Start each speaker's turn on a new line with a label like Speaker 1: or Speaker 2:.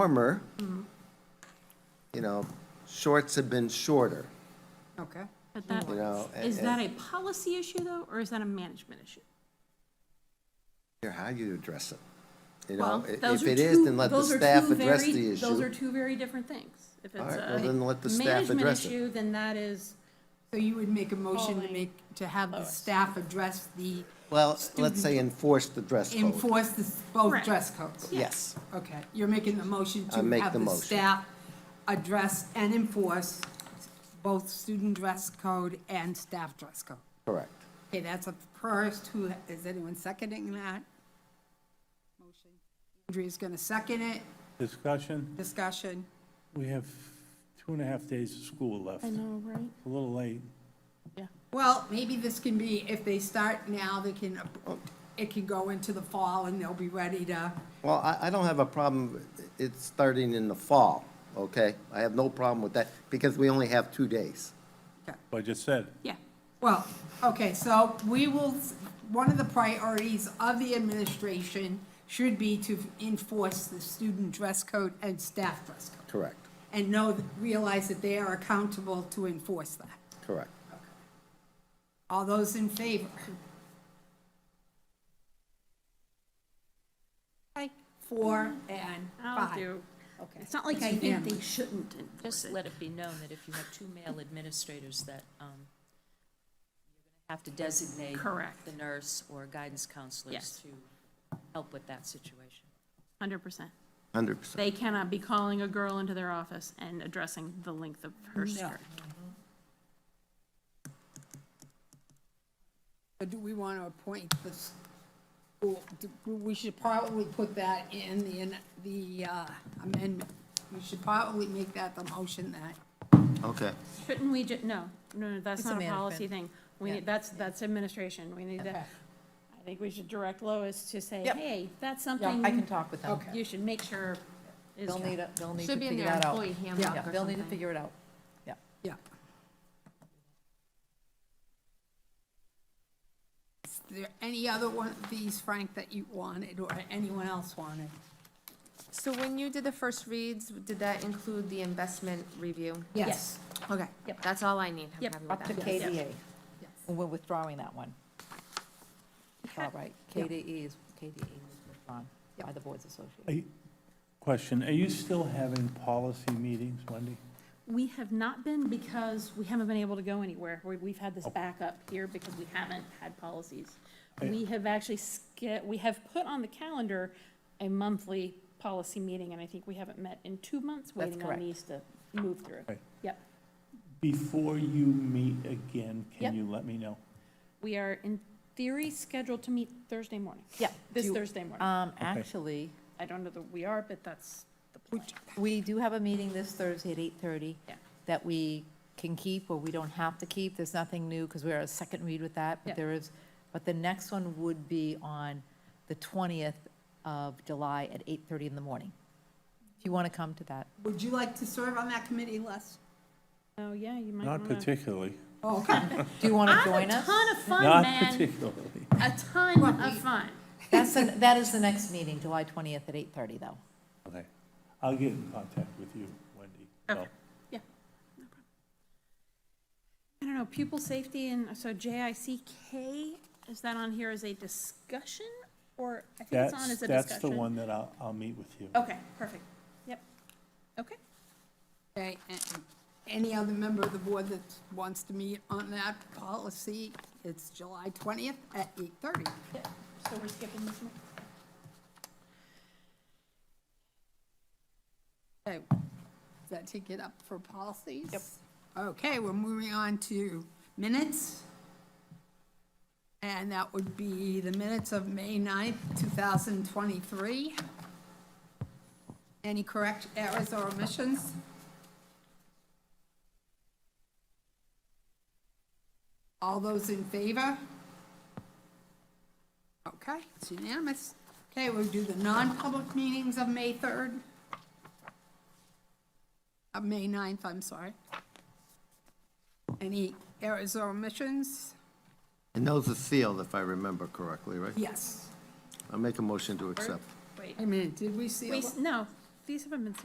Speaker 1: warmer,
Speaker 2: Mm-hmm.
Speaker 1: you know, shorts have been shorter,
Speaker 3: Okay.
Speaker 2: But that,
Speaker 1: you know. and-
Speaker 2: is that
Speaker 1: and-
Speaker 2: a policy issue though, or is that a management issue?
Speaker 1: Here, how you address it, you
Speaker 2: Well,
Speaker 1: know? I-
Speaker 2: those
Speaker 1: If
Speaker 2: are
Speaker 1: it is,
Speaker 2: two-
Speaker 1: then let the
Speaker 2: those are
Speaker 1: staff
Speaker 2: two
Speaker 1: address
Speaker 2: very-
Speaker 1: the
Speaker 2: Those are
Speaker 1: issue.
Speaker 2: two very different things. If
Speaker 1: All
Speaker 2: it's
Speaker 1: right, well,
Speaker 2: a
Speaker 1: then let the staff
Speaker 2: management
Speaker 1: address it.
Speaker 2: issue, then that is,
Speaker 3: So you would make a motion to
Speaker 2: Calling.
Speaker 3: make, to have the
Speaker 2: Lowest.
Speaker 3: staff address the,
Speaker 1: Well, let's say enforce the dress code.
Speaker 3: enforce the, s- both
Speaker 2: Correct.
Speaker 3: dress codes?
Speaker 1: Yes,
Speaker 3: Okay, you're making a motion
Speaker 1: I
Speaker 3: to
Speaker 1: make the
Speaker 3: have the
Speaker 1: motion.
Speaker 3: staff address and enforce both student dress code and staff dress code.
Speaker 1: correct.
Speaker 3: Okay, that's a first, who, is anyone seconding that? Motion. Andrea's gonna second it,
Speaker 4: Discussion,
Speaker 3: discussion.
Speaker 4: we have two and a half days of school left.
Speaker 2: I know, right?
Speaker 4: A little late.
Speaker 3: Well, maybe this can be, if they start now, they can, it can go into the fall and they'll be ready to,
Speaker 1: Well, I, I don't have a problem, it's starting in the fall, okay? I have no problem with that, because we only have two days.
Speaker 4: I just said,
Speaker 2: Yeah.
Speaker 3: well, okay, so we will, one of the priorities of the administration should be to enforce the student dress code and staff dress code.
Speaker 1: Correct,
Speaker 3: And know, realize that they are accountable to enforce that.
Speaker 1: correct.
Speaker 3: All those in favor? Okay, four and
Speaker 2: I'll
Speaker 3: five.
Speaker 2: do,
Speaker 3: Okay.
Speaker 2: it's not like I think they shouldn't enforce
Speaker 5: Just
Speaker 2: it.
Speaker 5: let it be known that if you have two male administrators that, um, you're gonna have to designate.
Speaker 2: Correct.
Speaker 5: The nurse or guidance
Speaker 2: Yes.
Speaker 5: counselors to help with that situation.
Speaker 2: Hundred percent.
Speaker 1: Hundred percent.
Speaker 2: They cannot be calling a girl into their office and addressing the length of her skirt.
Speaker 3: But do we want to appoint this, well, do- we should probably put that in the, in the uh, amendment. We should probably make that the motion that,
Speaker 1: Okay,
Speaker 2: Shouldn't we ju, no, no, no, that's
Speaker 6: It's a
Speaker 2: not a
Speaker 6: management.
Speaker 2: policy thing. We
Speaker 3: Yeah.
Speaker 2: need, that's, that's administration. We need to,
Speaker 3: Okay.
Speaker 2: I think we should direct Lois to say,
Speaker 6: Yep.
Speaker 2: hey, that's
Speaker 6: I can
Speaker 2: something
Speaker 6: talk with them.
Speaker 3: Okay.
Speaker 2: you should make sure is.
Speaker 6: Oh, They'll need, a- they'll need to
Speaker 7: Should be in
Speaker 6: figure
Speaker 7: their
Speaker 6: that out.
Speaker 7: employee
Speaker 3: Yeah,
Speaker 7: handbook
Speaker 6: Yeah,
Speaker 7: or
Speaker 6: they'll need to
Speaker 7: something.
Speaker 6: figure it out. Yeah.
Speaker 3: yeah. Is there any other one of these, Frank, that you wanted or anyone else wanted?
Speaker 7: So when you did the first reads, did that include the investment review?
Speaker 3: Yes. Okay.
Speaker 7: That's all I need. I'm
Speaker 2: Yep.
Speaker 7: happy with
Speaker 6: Up to
Speaker 7: that.
Speaker 6: KDA. And we're withdrawing that one. All right, KDE is, KDE was withdrawn by the Boards Association.
Speaker 4: I- question, are you still having policy meetings, Wendy?
Speaker 2: We have not been because we haven't been able to go anywhere. We, we've had
Speaker 4: Oh.
Speaker 2: this backup here because we haven't had policies. We have actually, ske- we have put on the calendar a monthly policy meeting, and I think we haven't met in two months,
Speaker 6: That's
Speaker 2: waiting on
Speaker 6: correct.
Speaker 2: these to move through.
Speaker 4: Right.
Speaker 2: Yep.
Speaker 4: Before you meet again,
Speaker 2: Yep.
Speaker 4: can you let me know?
Speaker 2: We are in theory scheduled to meet Thursday morning.
Speaker 6: Yeah.
Speaker 2: This
Speaker 6: do-
Speaker 2: Thursday morning.
Speaker 6: Um, actually,
Speaker 2: I don't know that we are, but that's the plan.
Speaker 6: we do have a meeting this Thursday at eight-thirty.
Speaker 2: Yeah.
Speaker 6: That we can keep or we don't have to keep. There's nothing new because we're at a second read with
Speaker 2: Yeah.
Speaker 6: that, but there is, but the next one would be on the twentieth of July at eight-thirty in the morning. If you want to come to that.
Speaker 3: Would you like to serve on that committee, Les?
Speaker 2: Oh, yeah, you might
Speaker 4: Not
Speaker 2: want to.
Speaker 4: particularly,
Speaker 3: Oh, okay.
Speaker 6: Do you want to
Speaker 2: I
Speaker 6: join
Speaker 2: have a
Speaker 6: us?
Speaker 2: ton of fun,
Speaker 4: not
Speaker 2: man.
Speaker 4: particularly.
Speaker 2: A ton of fun.
Speaker 6: That's, the- that is the next meeting, July 20th at 8:30, though.
Speaker 4: Okay, I'll get in contact with you, Wendy.
Speaker 2: Okay. Oh. Yeah. no problem. I don't know, pupil safety and, so JICK, is that on here as a discussion? Or I think it's on
Speaker 4: That's,
Speaker 2: as a discussion?
Speaker 4: that's the one that I'll, I'll meet with you.
Speaker 2: Okay, perfect. Yep. Okay.
Speaker 3: Okay, and any other member of the board that wants to meet on that policy, it's July twentieth at eight thirty.
Speaker 2: So we're skipping this one?
Speaker 3: Okay, does that take it up for policies? Yep. Okay, we're moving on to minutes. And that would be the minutes of May 9th, two thousand twenty-three. Any correct errors or omissions? All those in favor? Okay, it's unanimous. Okay, we'll do the non-public meetings of May 3rd. Of May 9th, I'm sorry. Any errors or omissions?
Speaker 1: and those are sealed, if I remember correctly, right?
Speaker 3: Yes.
Speaker 1: I'll make a motion to accept.
Speaker 2: Wait,
Speaker 3: I mean, did we see?
Speaker 2: we, s- no, these haven't been